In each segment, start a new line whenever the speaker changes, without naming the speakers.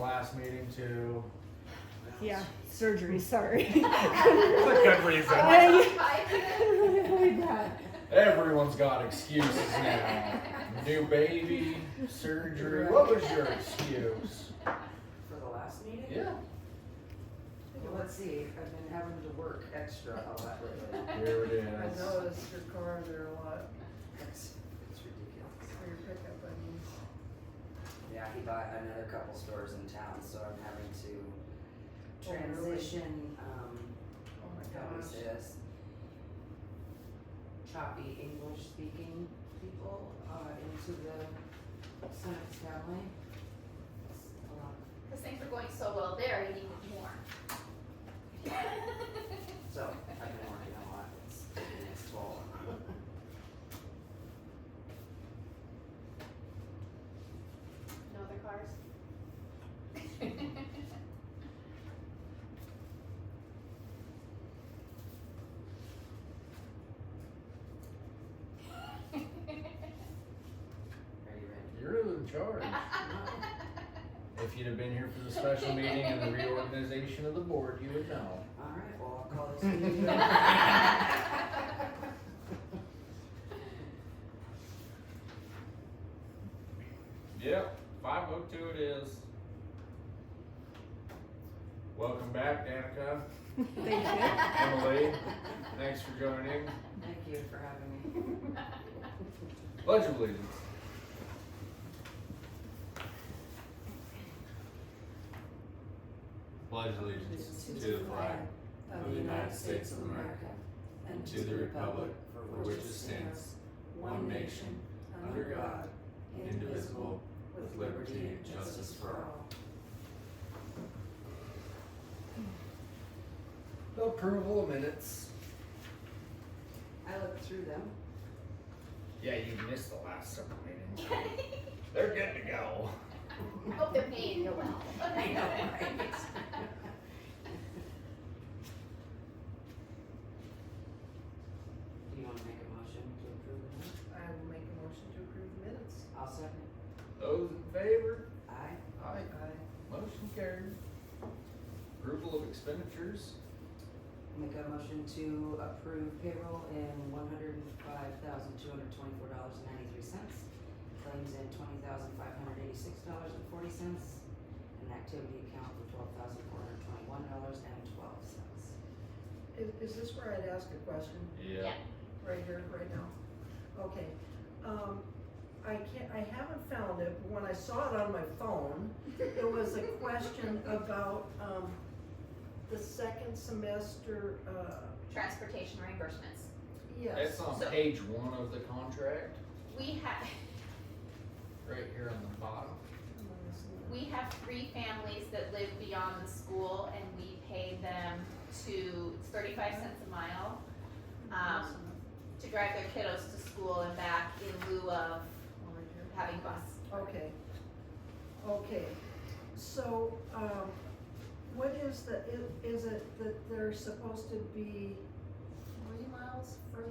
last meeting to.
Yeah, surgery, sorry.
It's a good reason.
Right?
Everyone's got excuses now. New baby, surgery. What was your excuse?
For the last meeting?
Yeah.
Well, let's see, I've been having to work extra a lot lately.
Here it
I
is.
noticed your car there a lot
It's it's ridiculous.
for your pickup, I mean.
Yeah, he bought another couple stores in town, so I'm having to
Oh, really?
transition, um,
Oh my
how is
gosh.
this? Choppy English speaking people, uh, into the Senex family. It's a lot.
Because things were going so well there, you needed more.
So I've been working a lot, it's taking its toll.
No other cars?
Are you ready?
You're in charge. If you'd have been here for the special meeting and the reorganization of the board, you would know.
Alright, well, I'll call this meeting.
Yep, five oh two it is. Welcome back, Danica, Emily, thanks for joining.
Thank you for having me.
Pledge of allegiance. Pledge allegiance to the flag
Of the United States of America
and to the republic for which it stands, one nation, under God, indivisible, with liberty and justice for all. Approval of minutes.
I looked through them.
Yeah, you missed the last several meetings. They're good to go.
I hope they're paying you well.
I know, right? Do you want to make a motion to approve it?
I will make a motion to approve the minutes.
I'll second.
Those in favor?
Aye.
Aye.
I,
Motion carried. Approval of expenditures?
Make a motion to approve payroll in one hundred and five thousand, two hundred twenty-four dollars and ninety-three cents. Claims in twenty thousand, five hundred eighty-six dollars and forty cents. And activity account for twelve thousand, four hundred twenty-one dollars and twelve cents.
is, is this where I'd ask a question?
Yeah.
Right here, right now? Okay, um, I can't, I haven't found it, but when I saw it on my phone, it was a question about, um, the second semester, uh,
Transportation reimbursements.
yes.
That's on
So-
page one of the contract,
We have,
right here on the bottom.
we have three families that live beyond the school and we pay them to, it's thirty-five cents a mile, um, to drive their kiddos to school and back in lieu of
Right here.
having bus.
Okay, okay, so, um, what is the, i- is it that they're supposed to be three miles further?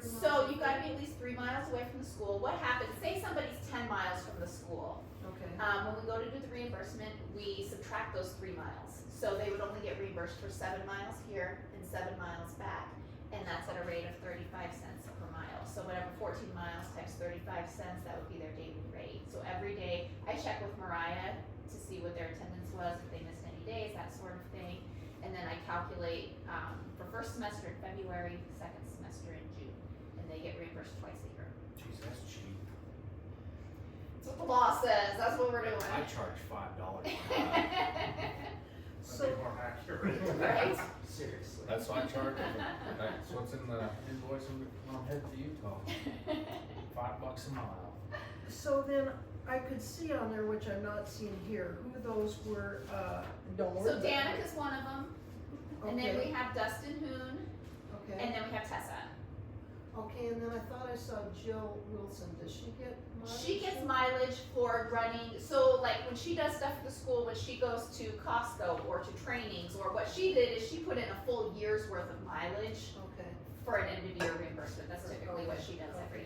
Three
So
miles?
you gotta be at least three miles away from the school. What happens, say somebody's ten miles from the school.
Okay,
Um, when we go to do the reimbursement, we subtract those three miles. So they would only get reimbursed for seven miles here and seven miles back. And that's at a rate of thirty-five cents per mile. So whatever fourteen miles times thirty-five cents, that would be their daily rate. So every day, I check with Mariah to see what their attendance was, if they missed any days, that sort of thing. And then I calculate, um, for first semester in February, second semester in June, and they get reimbursed twice a year.
Jeez, that's cheap.
That's what the law says, that's what we're
I
doing.
charge five dollars. That'd
so,
be more accurate.
Right?
Seriously.
That's why I charge them. That's what's in the invoice when I'm headed to Utah. Five bucks a mile.
so then I could see on there, which I'm not seeing here, who those were, uh, don't worry
So
about it.
Danica's one of them, and then we have Dustin Hoon,
Okay, okay,
and then we have Tessa.
okay, and then I thought I saw Jill Wilson, does she get mileage?
She gets mileage for running, so like when she does stuff at the school, when she goes to Costco or to trainings, or what she did is she put in a full year's worth of mileage
Okay.
for an end of year reimbursement, that's typically what she does every